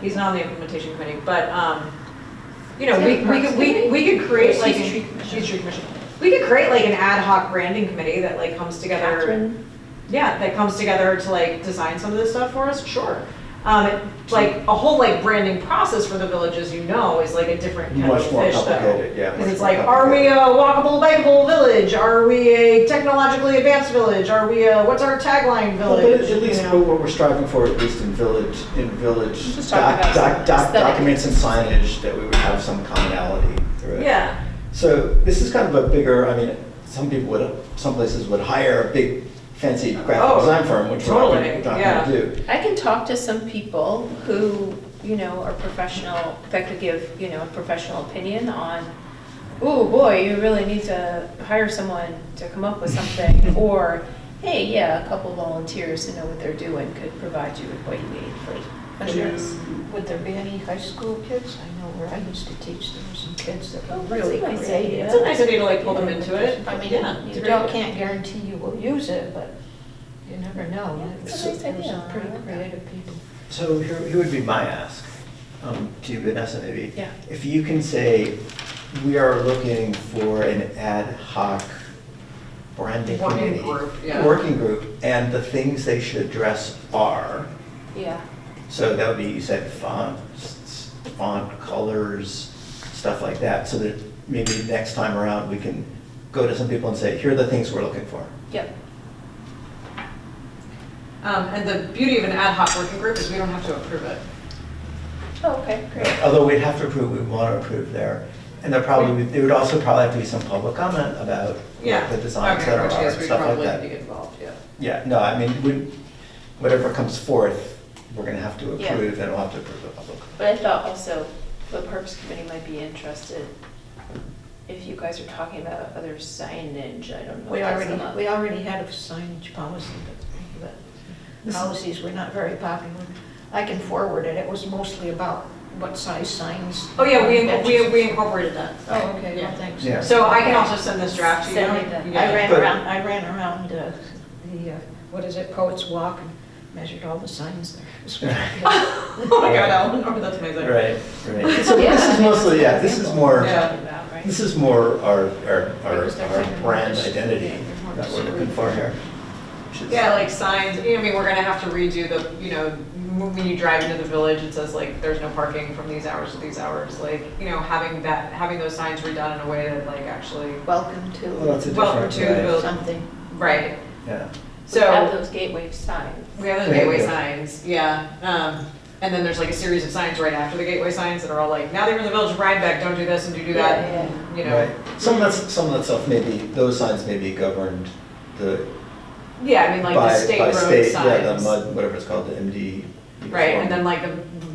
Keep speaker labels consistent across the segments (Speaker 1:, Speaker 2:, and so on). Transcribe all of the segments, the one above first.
Speaker 1: he's not on the implementation committee, but, um, you know, we, we could, we, we could create like.
Speaker 2: She's
Speaker 1: an-
Speaker 2: tree commission.
Speaker 1: she's tree commission. We could create like an ad hoc branding committee that like comes together.
Speaker 2: Catherine.
Speaker 1: Yeah, that comes together to like design some of this stuff for us, sure. Um, it- like a whole like branding process for the village, as you know, is like a different kind of
Speaker 3: Much more
Speaker 1: fish though.
Speaker 3: complicated, yeah.
Speaker 1: Because
Speaker 3: much
Speaker 1: it's
Speaker 3: more
Speaker 1: like, are we a
Speaker 3: complicated.
Speaker 1: walkable, bikeable village? Are we a technologically advanced village? Are we a, what's our tagline
Speaker 3: Well,
Speaker 1: village?
Speaker 3: But at
Speaker 1: You
Speaker 3: least
Speaker 1: know?
Speaker 3: what we're striving for, at least in village, in village
Speaker 2: Just talk
Speaker 3: doc-
Speaker 2: about
Speaker 3: doc- doc-
Speaker 2: aesthetic.
Speaker 3: documents and signage, that we would have some commonality through it.
Speaker 1: Yeah,
Speaker 3: So this is kind of a bigger, I mean, some people would, some places would hire a big fancy
Speaker 1: Oh,
Speaker 3: graphic design firm, which we're not gonna-
Speaker 1: totally,
Speaker 3: we're not
Speaker 1: yeah.
Speaker 3: gonna do.
Speaker 2: I can talk to some people who, you know, are professional, that could give, you know, a professional opinion on, oh, boy, you really need to hire someone to come up with something, or, hey, yeah, a couple volunteers who know what they're doing could provide you with what you need for
Speaker 4: Would
Speaker 2: to-
Speaker 4: there- Would there be any high school kids? I know where I used to teach, there were some kids that
Speaker 2: Oh,
Speaker 4: were
Speaker 2: that's
Speaker 4: really
Speaker 2: a nice idea.
Speaker 4: creative.
Speaker 1: it's a nice idea to like pull them into it.
Speaker 4: I mean,
Speaker 1: Yeah, it's a
Speaker 4: you
Speaker 1: great
Speaker 4: don't,
Speaker 1: idea.
Speaker 4: can't guarantee you will use it, but you never know.
Speaker 2: Yeah,
Speaker 4: There
Speaker 2: it's a
Speaker 4: was-
Speaker 2: nice
Speaker 4: there was
Speaker 2: idea.
Speaker 4: some
Speaker 2: I
Speaker 4: pretty
Speaker 2: like that.
Speaker 4: creative people.
Speaker 3: So here, here would be my ask, um, to you, Vanessa, maybe.
Speaker 2: Yeah.
Speaker 3: If you can say, we are looking for an ad hoc branding
Speaker 1: Working
Speaker 3: committee.
Speaker 1: group, yeah.
Speaker 3: Working group, and the things they should address are,
Speaker 2: Yeah.
Speaker 3: so that would be, you said fonts, font colors, stuff like that, so that maybe next time around, we can go to some people and say, here are the things we're looking for.
Speaker 2: Yep.
Speaker 1: Um, and the beauty of an ad hoc working group is we don't have to approve it.
Speaker 2: Oh, okay, great.
Speaker 3: Although we'd have to approve, we want to approve there. And there probably, there would also probably have to be some public comment about
Speaker 1: Yeah.
Speaker 3: what the designs
Speaker 1: Okay,
Speaker 3: that are,
Speaker 1: which, yes,
Speaker 3: stuff
Speaker 1: we'd
Speaker 3: like
Speaker 1: probably
Speaker 3: that.
Speaker 1: be involved, yeah.
Speaker 3: Yeah, no, I mean, we- whatever comes forth, we're going to have to
Speaker 2: Yeah.
Speaker 3: approve, and we'll have to approve the public.
Speaker 2: But I thought also the Parks Committee might be interested if you guys are talking about other signage, I don't know.
Speaker 4: We
Speaker 2: if that's
Speaker 4: already,
Speaker 2: enough.
Speaker 4: we already had a signage policy, but but policies were not very popular. I can forward it, it was mostly about what size signs.
Speaker 1: Oh, yeah, we,
Speaker 4: on
Speaker 1: we,
Speaker 4: benches.
Speaker 1: we incorporated that.
Speaker 4: Oh, okay, well,
Speaker 1: Yeah.
Speaker 4: thanks.
Speaker 3: Yeah.
Speaker 1: So I can also send this draft to you.
Speaker 2: Send me the-
Speaker 1: Yeah.
Speaker 4: I ran
Speaker 3: But-
Speaker 4: around, I ran around uh, the, uh, what is it, Poets Walk, and measured all the signs there.
Speaker 1: Oh my god, Ellen, oh, that's amazing.
Speaker 3: Right, right. So this is mostly, yeah, this is more,
Speaker 1: Yeah.
Speaker 2: Talking about, right?
Speaker 3: this is more our, our, our
Speaker 4: Because they're kind
Speaker 3: our
Speaker 4: of
Speaker 3: brand
Speaker 4: just-
Speaker 3: identity
Speaker 4: they're more
Speaker 3: that we're
Speaker 4: just-
Speaker 3: looking for here. which is-
Speaker 1: Yeah, like signs, you know, I mean, we're gonna have to redo the, you know, when when you drive into the village, it says like, there's no parking from these hours to these hours. Like, you know, having that, having those signs redone in a way that like actually,
Speaker 4: Welcome
Speaker 3: Well, that's
Speaker 4: to
Speaker 3: a
Speaker 1: Welcome
Speaker 3: different,
Speaker 1: to the
Speaker 3: right,
Speaker 1: village.
Speaker 4: something.
Speaker 1: right.
Speaker 3: yeah.
Speaker 2: We have
Speaker 1: So,
Speaker 2: those gateway signs.
Speaker 1: we have those
Speaker 3: Yeah,
Speaker 1: gateway
Speaker 3: yeah.
Speaker 1: signs, yeah. Um, and then there's like a series of signs right after the gateway signs that are all like, now that you're in the village of Rhinebeck, don't do this and do do that,
Speaker 2: Yeah,
Speaker 1: and, you
Speaker 3: Right.
Speaker 1: know.
Speaker 3: Some of that, some of that stuff maybe, those signs may be governed, the
Speaker 1: Yeah, I mean, like
Speaker 3: by,
Speaker 1: the state
Speaker 3: by
Speaker 1: road
Speaker 3: state,
Speaker 1: signs.
Speaker 3: yeah, the mud, whatever it's called, the E MD.
Speaker 1: Right,
Speaker 3: uniform.
Speaker 1: and then like the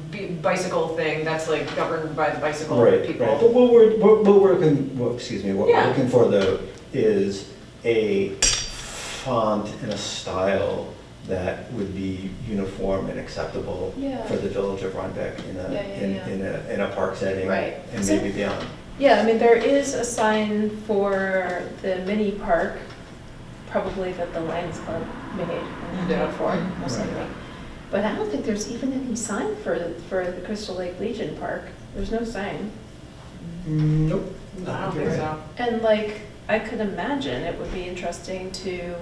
Speaker 1: b- bicycle thing, that's like governed by the bicycle
Speaker 3: Right, right,
Speaker 1: people.
Speaker 3: but what we're, what what we're looking, what, excuse me, what
Speaker 1: Yeah.
Speaker 3: we're looking for though is a font and a style that would be uniform and acceptable
Speaker 2: Yeah.
Speaker 3: for the village of Rhinebeck in a,
Speaker 2: Yeah, yeah,
Speaker 3: in,
Speaker 2: yeah.
Speaker 3: in a, in a park setting.
Speaker 2: Right.
Speaker 3: And
Speaker 2: So-
Speaker 3: maybe beyond.
Speaker 2: Yeah, I mean, there is a sign for the mini park, probably that the Lions Club made in
Speaker 1: Yeah.
Speaker 2: uniform or
Speaker 3: Right.
Speaker 2: something. But I don't think there's even any sign for, for the Crystal Lake Legion Park. There's no sign.
Speaker 3: Nope.
Speaker 1: I don't think so.
Speaker 2: And like, I could imagine it would be interesting to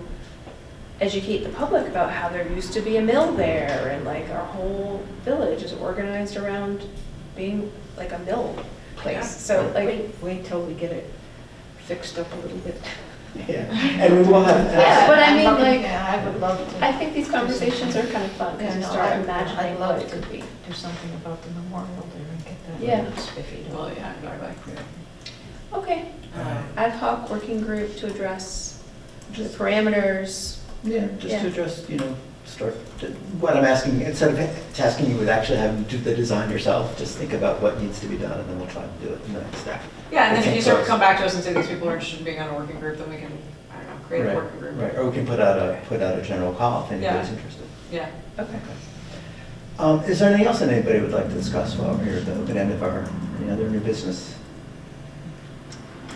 Speaker 2: educate the public about how there used to be a mill there and like our whole village is organized around being like a mill
Speaker 1: Yeah.
Speaker 2: place. So like,
Speaker 4: Wait, wait till we get it fixed up a little bit.
Speaker 3: Yeah, and we will have.
Speaker 2: Yeah, but I mean,
Speaker 4: I'd love-
Speaker 2: like,
Speaker 4: yeah, I would love to.
Speaker 2: I think these conversations are kind of fun because
Speaker 4: Yeah,
Speaker 2: you
Speaker 4: no,
Speaker 2: start
Speaker 4: I'd-
Speaker 2: imagining
Speaker 4: I'd
Speaker 2: what
Speaker 4: love
Speaker 2: it
Speaker 4: to
Speaker 2: could be.
Speaker 4: do something about the memorial there and get that.
Speaker 2: Yeah.
Speaker 4: spiffy.
Speaker 1: Well, yeah, exactly.
Speaker 2: Okay, ad hoc working group to address the parameters.
Speaker 3: Yeah, just
Speaker 2: Yeah.
Speaker 3: to address, you know, start, what I'm asking, instead of tasking you with actually having to do the design yourself, just think about what needs to be done, and then we'll try to do it in the next step.
Speaker 1: Yeah, and then if
Speaker 3: Okay,
Speaker 1: you sort of
Speaker 3: close.
Speaker 1: come back to us and say these people are interested in being on a working group, then we can, I don't know, create a
Speaker 3: Right,
Speaker 1: working group.
Speaker 3: Right, or we can put out a, put out a general call if anybody's
Speaker 1: Yeah.
Speaker 3: interested.
Speaker 1: Yeah.
Speaker 2: Okay.
Speaker 3: Um, is there anything else that anybody would like to discuss while we're here at the open end of our, any other new business?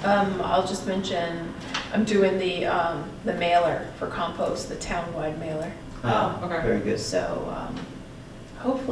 Speaker 2: Um, I'll just mention, I'm doing the, um, the mailer for compost, the town-wide mailer.
Speaker 3: Ah,
Speaker 1: Oh, okay.
Speaker 3: Very good.
Speaker 2: So, um, hopefully